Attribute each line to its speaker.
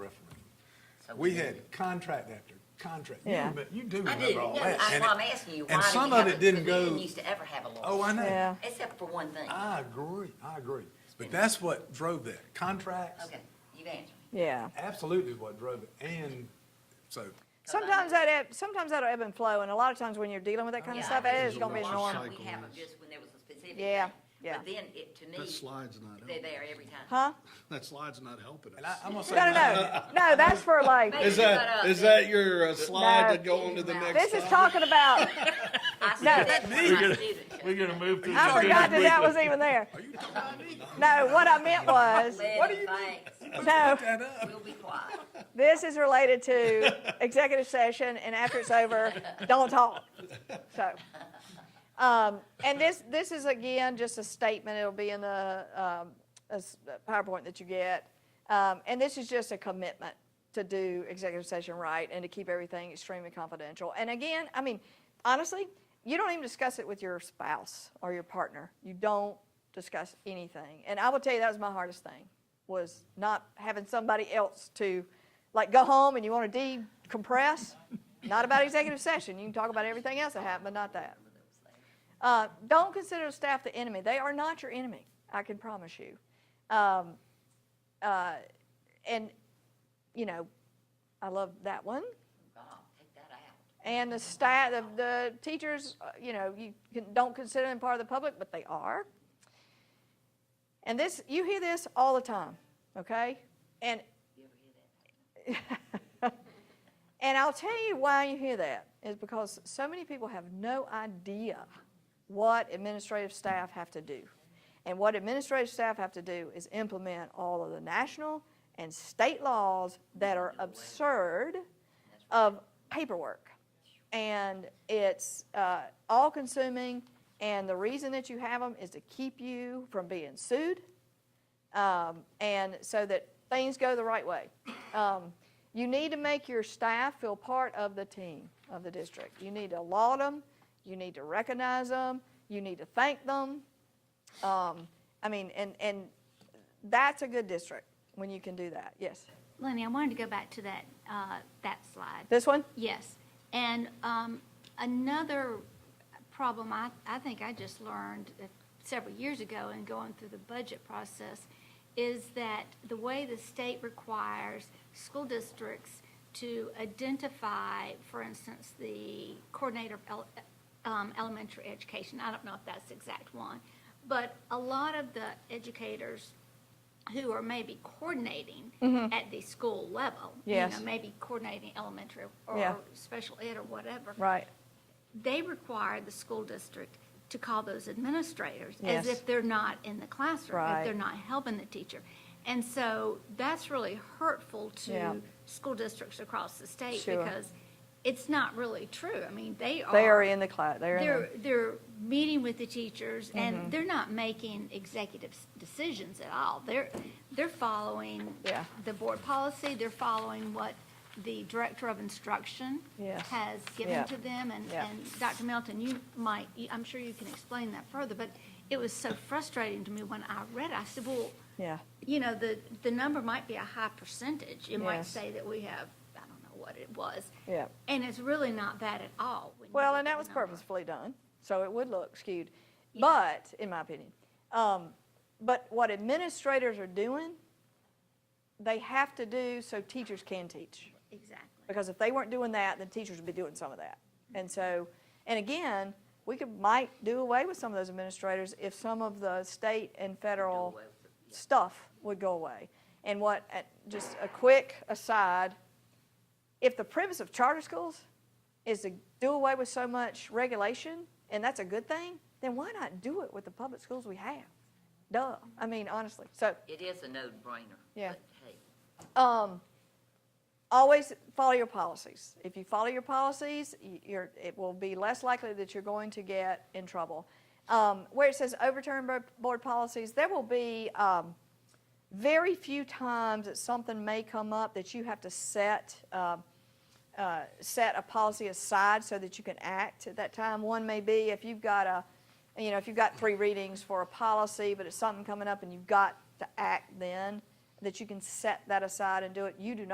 Speaker 1: so.
Speaker 2: We had contract after contract. You
Speaker 3: Yeah.
Speaker 2: remember- You do
Speaker 1: I do,
Speaker 2: remember all
Speaker 1: no,
Speaker 2: that.
Speaker 1: that's
Speaker 2: And
Speaker 1: why
Speaker 2: it-
Speaker 1: I'm asking you, why
Speaker 2: And
Speaker 1: did
Speaker 2: some
Speaker 1: you
Speaker 2: of
Speaker 1: have
Speaker 2: it
Speaker 1: it,
Speaker 2: didn't
Speaker 1: because we didn't
Speaker 2: go,
Speaker 1: used to ever have a lawyer.
Speaker 2: oh, I know.
Speaker 3: Yeah.
Speaker 1: Except for one thing.
Speaker 2: I agree, I agree. But that's what drove that. Contracts,
Speaker 1: Okay, you've answered.
Speaker 3: yeah.
Speaker 2: absolutely is what drove it. And so,
Speaker 3: Sometimes that ebb, sometimes that'll ebb and flow, and a lot of times when you're dealing with that kind of
Speaker 1: Yeah,
Speaker 3: stuff,
Speaker 1: I
Speaker 3: it is
Speaker 1: just
Speaker 3: gonna be
Speaker 1: don't
Speaker 4: It's
Speaker 1: know
Speaker 4: normal.
Speaker 1: how
Speaker 3: normal.
Speaker 1: We have them just when there was a specific.
Speaker 3: Yeah,
Speaker 1: thing.
Speaker 3: yeah.
Speaker 1: But then it, to me.
Speaker 4: That slide's not
Speaker 1: They're
Speaker 4: helping.
Speaker 1: there every time.
Speaker 3: Huh?
Speaker 4: That slide's not helping
Speaker 2: and I,
Speaker 4: us.
Speaker 2: I'm gonna say.
Speaker 3: No, no, no, no, that's for like,
Speaker 1: Maybe
Speaker 5: Is
Speaker 1: shut
Speaker 5: that,
Speaker 1: up.
Speaker 5: is that your uh, slide
Speaker 3: No.
Speaker 5: to go on to the next?
Speaker 3: this is
Speaker 5: slide?
Speaker 3: talking about,
Speaker 1: I said that
Speaker 3: that's
Speaker 1: for my students.
Speaker 6: We're gonna move to.
Speaker 3: I forgot that that was even there. No, what I meant was,
Speaker 1: What do you mean?
Speaker 3: no,
Speaker 2: That up.
Speaker 1: We'll be quiet. Oh,
Speaker 3: this is related to executive session, and after it's over, don't talk. So, um, and this, this is again, just a statement, it'll be in the, um, a s- a PowerPoint that you get. Um, and this is just a commitment to do executive session right and to keep everything extremely confidential. And again, I mean, honestly, you don't even discuss it with your spouse or your partner. You don't discuss anything. And I will tell you, that was my hardest thing, was not having somebody else to, like, go home and you want to decompress. Not about executive session. You can talk about everything else that happened, but not that. Uh, don't consider the staff the enemy. They are not your enemy, I can promise you. Um, uh, and, you know, I love that one.
Speaker 1: God, take that out.
Speaker 3: And the staff, the, the teachers, uh, you know, you can, don't consider them part of the public, but they are. And this, you hear this all the time, okay? And
Speaker 1: You ever hear that?
Speaker 3: And I'll tell you why you hear that is because so many people have no idea what administrative staff have to do. And what administrative staff have to do is implement all of the national and state laws that are absurd of paperwork. And it's uh, all consuming, and the reason that you have them is to keep you from being sued um, and so that things go the right way. Um, you need to make your staff feel part of the team of the district. You need to laud them, you need to recognize them, you need to thank them. Um, I mean, and, and that's a good district when you can do that. Yes.
Speaker 7: Lenny, I wanted to go back to that, uh, that slide.
Speaker 3: This one?
Speaker 7: Yes. And um, another problem I, I think I just learned uh, several years ago in going through the budget process is that the way the state requires school districts to identify, for instance, the coordinator of ele- um, elementary education, I don't know if that's the exact one, but a lot of the educators who are maybe coordinating at the school level. you
Speaker 3: Yes.
Speaker 7: know, Maybe coordinating elementary
Speaker 3: Yeah.
Speaker 7: or special ed or whatever.
Speaker 3: Right.
Speaker 7: They require the school district to call those administrators
Speaker 3: Yes.
Speaker 7: as if they're not in the classroom.
Speaker 3: Right.
Speaker 7: If they're not helping the teacher. And so that's really hurtful
Speaker 3: Yeah.
Speaker 7: to school districts across the state
Speaker 3: Sure.
Speaker 7: because it's not really true. I mean, they are.
Speaker 3: They are in the class. They're Mm-hmm. in
Speaker 7: They're,
Speaker 3: the,
Speaker 7: they're meeting with the teachers, and they're not making executive s- decisions at all. They're, they're following
Speaker 3: Yeah.
Speaker 7: the board policy, they're following what the director of instruction
Speaker 3: Yes.
Speaker 7: has
Speaker 3: Yeah.
Speaker 7: given to them, and,
Speaker 3: Yeah.
Speaker 7: and Dr. Melton, you might, you- I'm sure you can explain that further, but it was so frustrating to me when I read, it. I said, well,
Speaker 3: yeah.
Speaker 7: you know, the, the number might be a high percentage. It might
Speaker 3: Yes.
Speaker 7: say that we have, I don't know what it was.
Speaker 3: Yeah.
Speaker 7: And it's really not that at all. when you
Speaker 3: Well,
Speaker 7: look
Speaker 3: and
Speaker 7: at
Speaker 3: that
Speaker 7: the
Speaker 3: was
Speaker 7: number.
Speaker 3: purposefully done, so it would look skewed.
Speaker 7: Yeah.
Speaker 3: But, in my opinion, um, but what administrators are doing, they have to do so teachers can teach.
Speaker 7: Exactly.
Speaker 3: Because if they weren't doing that, then teachers would be doing some of that. And so, and again, we could, might do away with some of those administrators if some of the state and federal stuff would go away. And what, uh, just a quick aside, if the premise of charter schools is to do away with so much regulation, and that's a good thing, then why not do it with the public schools we have? Duh, I mean, honestly, so.
Speaker 1: It is a no-brainer.
Speaker 3: Yeah.
Speaker 1: But hey,
Speaker 3: Um, always follow your policies. If you follow your policies, y- you're, it will be less likely that you're going to get in trouble. Um, where it says overturn bo- board policies, there will be, um, very few times that something may come up that you have to set, uh, uh, set a policy aside so that you can act at that time. One may be if you've got a, you know, if you've got three readings for a policy, but it's something coming up and you've got to act then, that you can set that aside and do it. You do not.